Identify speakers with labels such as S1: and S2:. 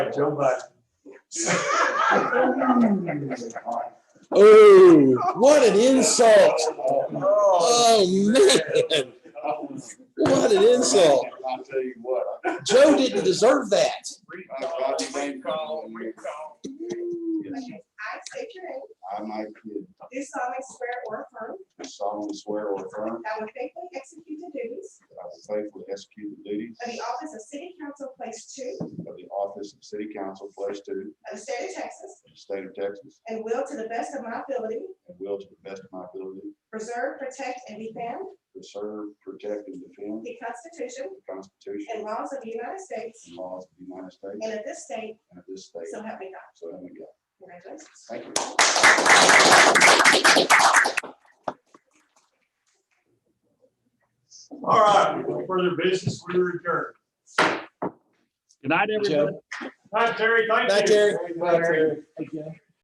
S1: Joe Biden.
S2: Oh, what an insult. Oh, man. What an insult.
S3: I'll tell you what.
S2: Joe didn't deserve that.
S3: Yes,
S4: Okay, I state your name,
S3: I, Mike Kidd,
S4: do solemnly swear or affirm
S3: do solemnly swear or affirm
S4: that I will faithfully execute the duties
S3: that I will faithfully execute the duties
S4: of the office of City Council Place Two
S3: of the office of City Council, Place Two,
S4: of the state of Texas
S3: of the State of Texas,
S4: and will to the best of my ability
S3: and will to the best of my ability
S4: preserve, protect, and defend
S3: preserve, protect, and defend
S4: the Constitution
S3: the Constitution
S4: and laws of the United States
S3: and laws of the United States
S4: and of this state,
S3: and of this state.
S4: so help me God.
S3: So help me God.
S4: Congratulations.
S3: Thank you.
S1: All right, no further business, we return.
S5: Good night, everyone.
S1: Hi, Terry, thank you.
S2: Hi, Terry.
S1: Terry.
S2: Thank you.